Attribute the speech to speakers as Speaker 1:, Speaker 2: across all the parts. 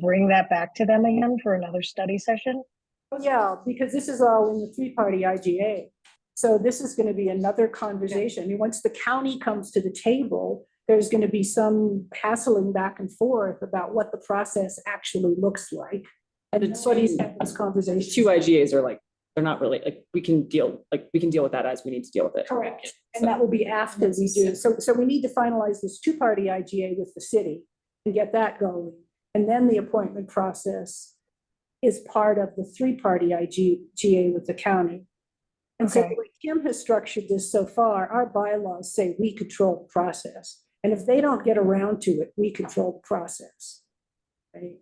Speaker 1: bring that back to them again for another study session?
Speaker 2: Oh, Yeah, because this is all in the three-party IGA. So this is going to be another conversation. I mean, once the county comes to the table, there's going to be some hassling back and forth about what the process actually looks like. And
Speaker 3: The
Speaker 2: nobody's
Speaker 3: two-
Speaker 2: had this
Speaker 3: These
Speaker 2: conversation.
Speaker 3: two IGAs are like, they're not really, like, we can deal, like, we can deal with that as we need to deal with it.
Speaker 2: Correct. And that will be after we do. So, so we need to finalize this two-party IGA with the city and get that going. And then the appointment process is part of the three-party IGA with the county. And so the
Speaker 1: Okay.
Speaker 2: way Kim has structured this so far, our bylaws say we control the process. And if they don't get around to it, we control the process. Right?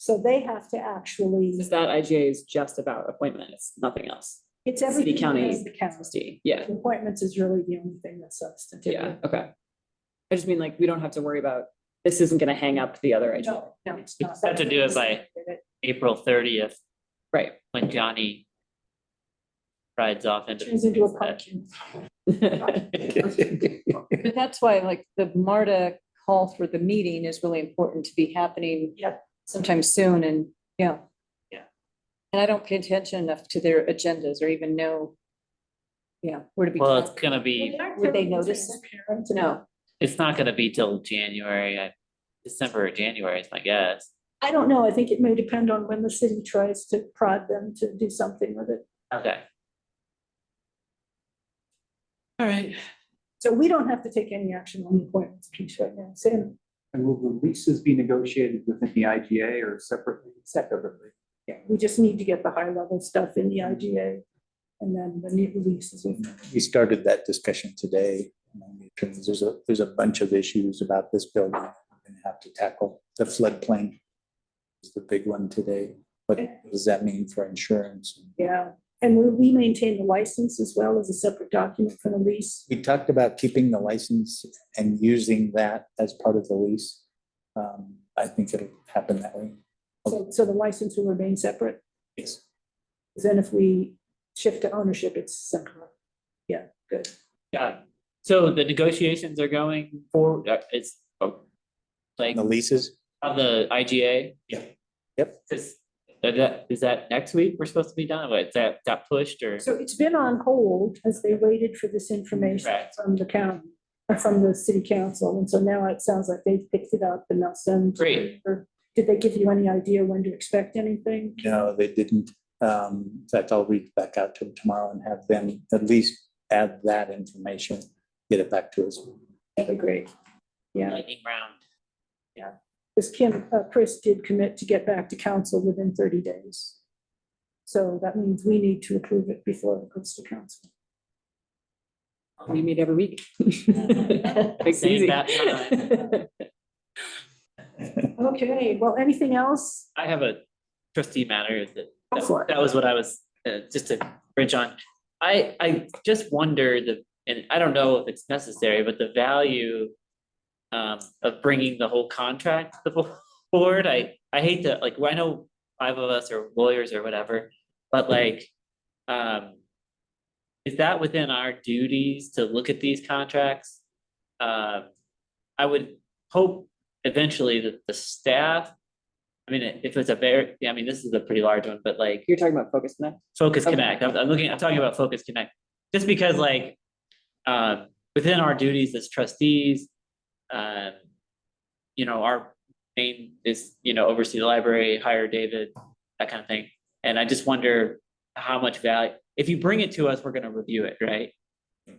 Speaker 2: So they have to actually,
Speaker 3: Is that IGA is just about appointment, it's nothing else.
Speaker 2: it's everything.
Speaker 3: county
Speaker 2: that's The
Speaker 3: It's
Speaker 2: county.
Speaker 3: D, yeah,
Speaker 2: Appointments is really the only thing that's substantive.
Speaker 3: yeah, okay. I just mean like, we don't have to worry about, this isn't gonna hang up to the other IGA,
Speaker 2: No, no, it's
Speaker 4: You
Speaker 2: not.
Speaker 4: just have to do it by April thirtieth,
Speaker 3: right?
Speaker 4: when Johnny rides off into.
Speaker 2: Turns into a pumpkin.
Speaker 5: But that's why like the MARTA call for the meeting is really important to be happening.
Speaker 2: Yep.
Speaker 5: Sometime soon and, yeah.
Speaker 4: Yeah.
Speaker 5: And I don't pay attention enough to their agendas or even know. Yeah, where to be.
Speaker 4: Well, it's gonna be,
Speaker 5: Would they notice?
Speaker 2: Parents,
Speaker 5: No,
Speaker 4: it's not gonna be till January, I- December or January is my guess.
Speaker 2: I don't know. I think it may depend on when the city tries to prod them to do something with it.
Speaker 4: Okay. All right.
Speaker 2: So we don't have to take any action on the appointments piece right now. Sam,
Speaker 6: And will the leases be negotiated within the IGA or separately? Separately.
Speaker 2: yeah, we just need to get the high level stuff in the IGA and then the new releases.
Speaker 6: We started that discussion today. There's a, there's a bunch of issues about this building we're gonna have to tackle. The floodplain is the big one today. What does that mean for insurance?
Speaker 2: Yeah, and we, we maintain the license as well as a separate document for the lease.
Speaker 6: We talked about keeping the license and using that as part of the lease. Um, I think it'll happen that way.
Speaker 2: So, so the license will remain separate.
Speaker 6: Yes.
Speaker 2: Then if we shift to ownership, it's separate. Yeah, good.
Speaker 4: Yeah, Um, so the negotiations are going forward, uh, it's, oh, like,
Speaker 6: The leases?
Speaker 4: on the IGA?
Speaker 6: Yeah. Yep.
Speaker 4: Is, is that, is that next week we're supposed to be done, What, is that, got pushed or?
Speaker 2: So it's been on hold as they waited for this information
Speaker 4: Right.
Speaker 2: from the county, or from the city council. And so now it sounds like they've picked it up and they'll send.
Speaker 4: Great.
Speaker 2: Or did they give you any idea when to expect anything?
Speaker 6: No, they didn't. Um, in fact, I'll reach back out to them tomorrow and have them at least add that information, get it back to us.
Speaker 2: That'd be great. Yeah,
Speaker 4: Lightning round.
Speaker 2: because Kim, uh, Chris did commit to get back to council within thirty days. So that means we need to approve it before it goes to council.
Speaker 3: We meet every week. Makes it
Speaker 4: Save
Speaker 3: easy.
Speaker 4: that
Speaker 2: Okay, well, anything else?
Speaker 4: I have a trustee matter that,
Speaker 2: Go for
Speaker 4: that-
Speaker 2: it.
Speaker 4: that was what I was, uh, just to bridge on. I, I just wonder the, and I don't know if it's necessary, but the value um, of bringing the whole contract to the board, I, I hate that, like, I know five of us are lawyers or whatever, but like, um, is that within our duties to look at these contracts? Um, I would hope eventually that the staff, I mean, if it's a very, I mean, this is a pretty large one, but like,
Speaker 3: You're talking about Focus Connect?
Speaker 4: Focus
Speaker 3: Okay.
Speaker 4: Connect, I'm, I'm looking, I'm talking about Focus Connect, just because like, uh, within our duties as trustees, um, you know, our main is, you know, oversee the library, hire David, that kind of thing. And I just wonder how much value, if you bring it to us, we're gonna review it, right?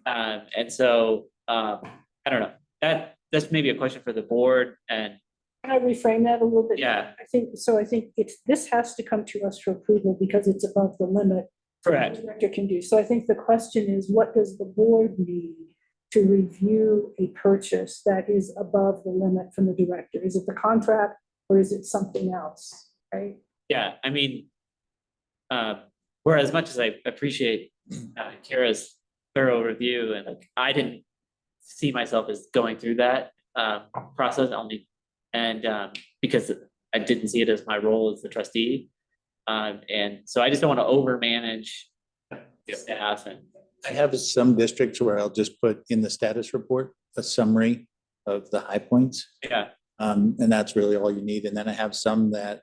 Speaker 4: Um, and so, um, I don't know, that, that's maybe a question for the board and,
Speaker 2: Can I reframe that a little bit?
Speaker 4: yeah.
Speaker 2: I think, so I think it's, this has to come to us for approval because it's above the limit. that the Director can do. So I think the question is, what does the board need to review a purchase that is above the limit from the director? Is it the contract or is it something else, right?
Speaker 4: Yeah, I mean, um, where as much as I appreciate uh, Kara's thorough review and like, I didn't see myself as going through that um, process only. And um, because I didn't see it as my role as the trustee. Um, And so I just don't want to overmanage staff and,
Speaker 6: I have some districts where I'll just put in the status report, a summary of the high points.
Speaker 4: yeah,
Speaker 6: Um, and that's really all you need. And then I have some that